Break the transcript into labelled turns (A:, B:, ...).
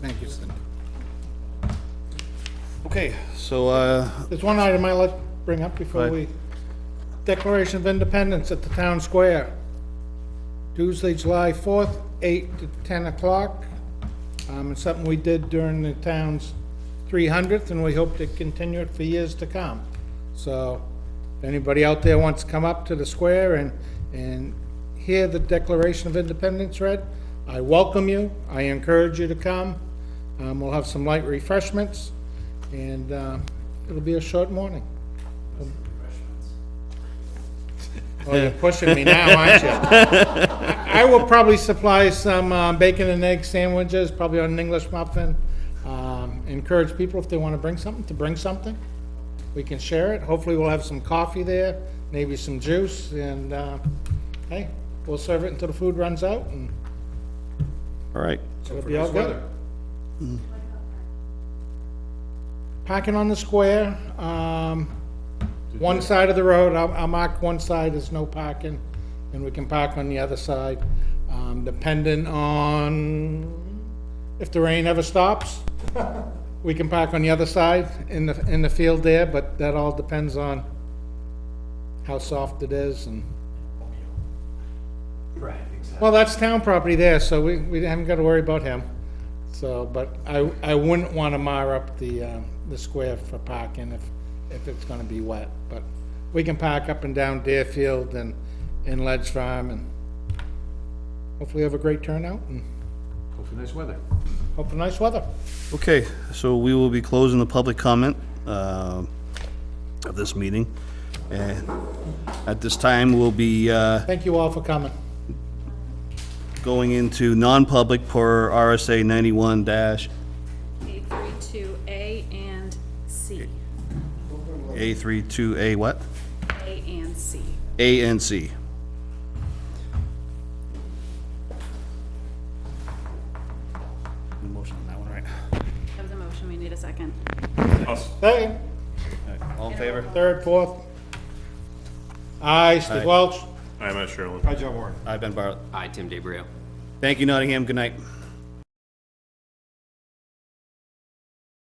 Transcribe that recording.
A: Thank you, Cindy.
B: Okay, so, uh,
A: There's one item I'd like to bring up before
B: Right.
A: we, Declaration of Independence at the Town Square, Tuesday, July 4th, 8 to 10 o'clock. Um, It's something we did during the town's 300th, and we hope to continue it for years to come. So, if anybody out there wants to come up to the square and, and hear the Declaration of Independence read, I welcome you, I encourage you to come. Um, We'll have some light refreshments, and um, it'll be a short morning. Oh, you're pushing me now, aren't you? I will probably supply some uh, bacon and egg sandwiches, probably on an English muffin. Um, Encourage people if they want to bring something, to bring something. We can share it. Hopefully, we'll have some coffee there, maybe some juice, and, uh, hey, we'll serve it until the food runs out, and
B: all right,
A: it'll be all good. Parking on the square, um, one side of the road, I'll, I'll mark one side as no parking, and we can park on the other side, um, depending on if the rain ever stops. We can park on the other side in the, in the field there, but that all depends on how soft it is and.
C: Right, exactly.
A: Well, that's town property there, so we, we haven't got to worry about him. So, but I, I wouldn't want to mar up the, um, the square for parking if, if it's going to be wet. But we can park up and down Deerfield and, and Ledge Farm and hopefully have a great turnout and
C: Hope for nice weather.
A: hope for nice weather.
B: okay, so we will be closing the public comment, uh, of this meeting. And at this time, we'll be, uh,
A: Thank you all for coming.
B: going into non-public per RSA ninety-one dash
D: A three two A and C,
B: A three two A what?
D: A and C.
B: A and C. Motion on that one, right?
D: That was a motion, we need a second.
A: Hey,
B: All in favor?
A: third, fourth. Aye, Steve
B: Aye.
A: Welch.
E: I'm not sure.
B: I've been Bartlett.
F: Hi, Tim DeBrio.
B: Thank you, Nottingham. Good night.